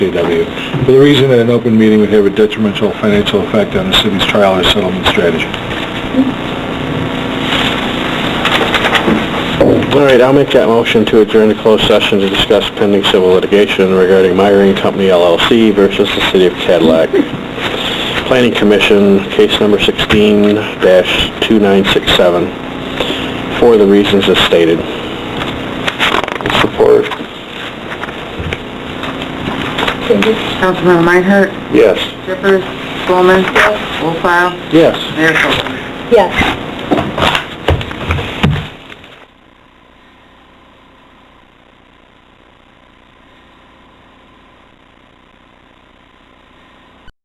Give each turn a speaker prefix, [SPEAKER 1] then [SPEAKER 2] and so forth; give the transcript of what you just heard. [SPEAKER 1] KW, for the reason that an open meeting would have a detrimental financial effect on the city's trial or settlement strategy.
[SPEAKER 2] All right, I'll make that motion to adjourn to closed session to discuss pending civil litigation regarding Myring Company LLC versus the City of Cadillac. Planning Commission, case number 16-2967, for the reasons as stated. Support.
[SPEAKER 3] Councilmember Meinhardt,
[SPEAKER 2] Yes.
[SPEAKER 3] Jeffers, Spelman. Wolfile,
[SPEAKER 2] Yes.
[SPEAKER 3] Mayor Copeland.
[SPEAKER 4] Yes.